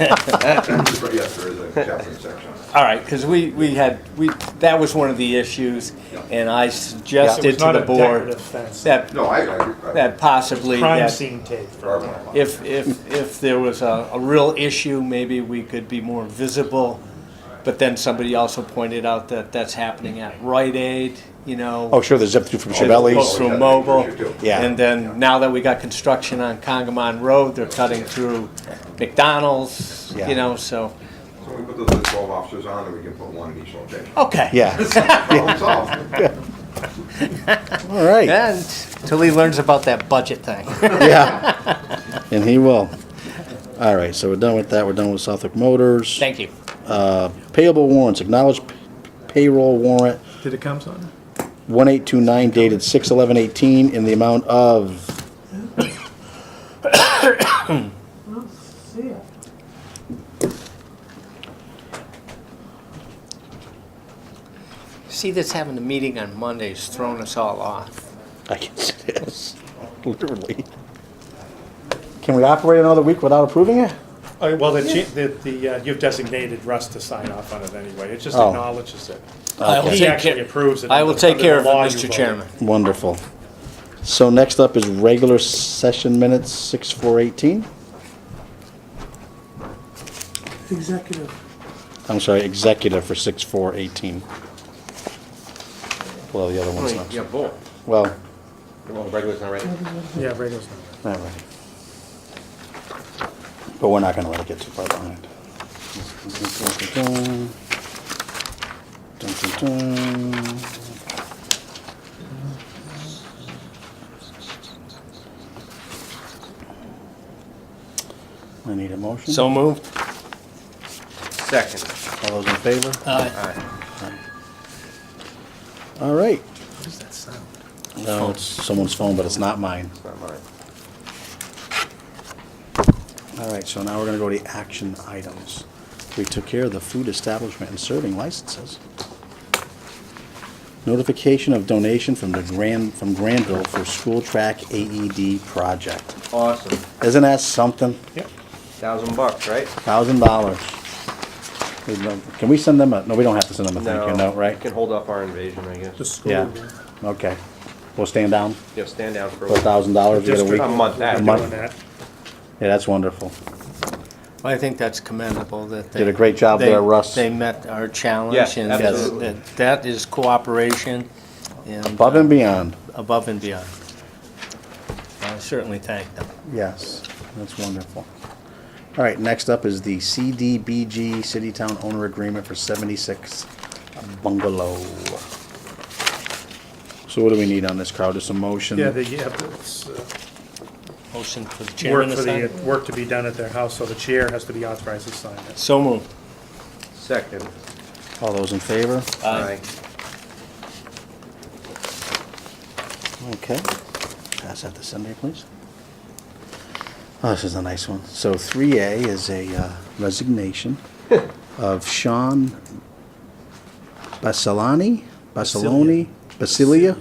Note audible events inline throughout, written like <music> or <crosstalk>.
But yes, there is a Catherine section. All right, because we, we had, we, that was one of the issues, and I suggested It's to not the a board decorative fence. that, No, I, I. I- that possibly, Crime that scene tape. for our one. if, if, if there was a, a real issue, maybe we could be more visible. But then somebody also pointed out that that's happening at Rite Aid, you know. Oh, sure, the zip through from As opposed Chevelli's. to Yeah, mobile. you do. Yeah. And then now that we got construction on Congamon Road, they're cutting through McDonald's, Yeah. you know, so, So we put the the twelve officers on, and we can put one in each location. okay. Yeah, Problem solved. <laughs> all right, And till he learns about that budget thing. yeah. And he will. All right, so we're done with that, we're done with Southwick Motors. Thank you. Uh, Payable warrants, acknowledged p- payroll warrant Did it come, son? 1829 dated 6/11/18 in the amount of, See ya. See, this having a meeting on Monday's thrown us all off. I guess it is, <laughs> literally. Can we operate another week without approving it? Uh, Well, the, chi- the, the, uh, you've designated Russ to sign off on it anyway. It just Oh. acknowledges it. I will Okay. He take actually care- approves it I will under take the care of it, law you Mr. voted. Chairman. Wonderful. So next up is regular session minutes, 6/4/18. Executive. I'm sorry, executive for 6/4/18. Well, the other one's not. both. Well, Well, regular's not ready. Yeah, Rego's not ready. But we're not gonna let it get too far behind. Dun, dun, dun. I need a motion. So moved. Second. All those in favor? Uh, All right. What does that sound? No, it's someone's phone, but it's not mine. It's not mine. All right, so now we're gonna go to the action items. We took care of the food establishment and serving licenses. Notification of donation from the Grand, from Granville for school track AED project. Awesome. Isn't that something? Yep. Thousand bucks, right? Thousand dollars. There's no- Can we send them a, no, we don't have to send them a thank you note, We right? Can hold off our invasion, I guess. The Just, school. Yeah, okay. We'll stand down you know, stand down for a for a while. thousand dollars, we get a District week. A month they're after. doing that. Yeah, that's wonderful. I think that's commendable that they. Did a great job they- there, Russ. They met our challenge Yeah, and absolutely. that, that is cooperation and Above and beyond. above and beyond. I certainly thank them. Yes, that's wonderful. All right, next up is the CDBG City Town Owner Agreement for 76 Bungalow. So what do we need on this, crowd? Just a motion? Yeah, they have, to- it's, uh, Motion for the work chairman for to the, sign. work to be done at their house, so the chair has to be authorized to sign it. So moved. Second. All those in favor? Uh, Aye. Okay. Pass that to Cindy, please. Oh, this is a nice one. So 3A is a uh, <laughs> resignation of Sean Basilani, Basiloni, Basilia?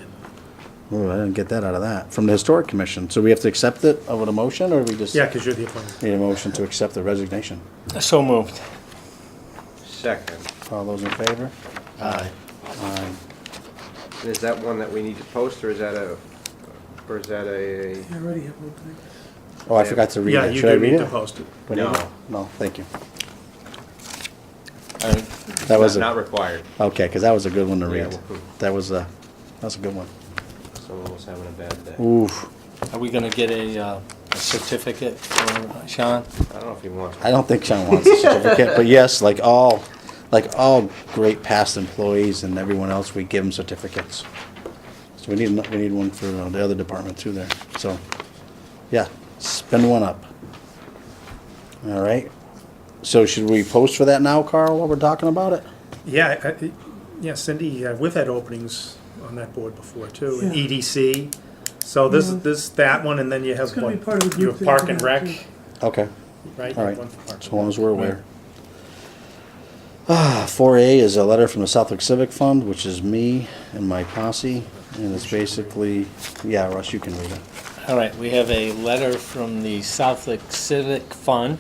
Oh, I didn't get that out of that, from the Historic Commission. So we have to accept it with a motion, or we just? Yeah, because you're the appointee. Need a motion to accept the resignation. So moved. Second. All those in favor? Aye. Aye. And Is that one that we need to post, or is that a, or is that a? I already have one thing. Oh, I forgot to read Yeah, it. you Should I do read need to it? post it. We need No. to- No, thank you. All right. That was Not a, required. okay, because that was a good one to Yeah, read. we'll- That was a, that was a good one. Someone was having a bad day. Oof. Are we gonna get a, uh, a certificate for Sean? I don't know if he wants. I don't think Sean wants a certificate, but yes, like all, like all great past employees and everyone else, we give them certificates. So we need, ano- we need one for uh, the other department too there, so, yeah, spin one up. All right, so should we post for that now, Carl, while we're talking about it? Yeah, I- I- yeah, Cindy, uh, we've had openings on that board before too, in Yeah. Mm-hmm. EDC. So this, this, that one, and then you have gonna be one, part of the you have group that Park you and have Rec, to- Okay, right? You have all right, one for Park as and long Rec. as we're aware. Ah, four A is a letter from the Southwick Civic Fund, which is me and my posse, and it's basically, yeah, Russ, you can read it. All right, we have a letter from the Southwick Civic Fund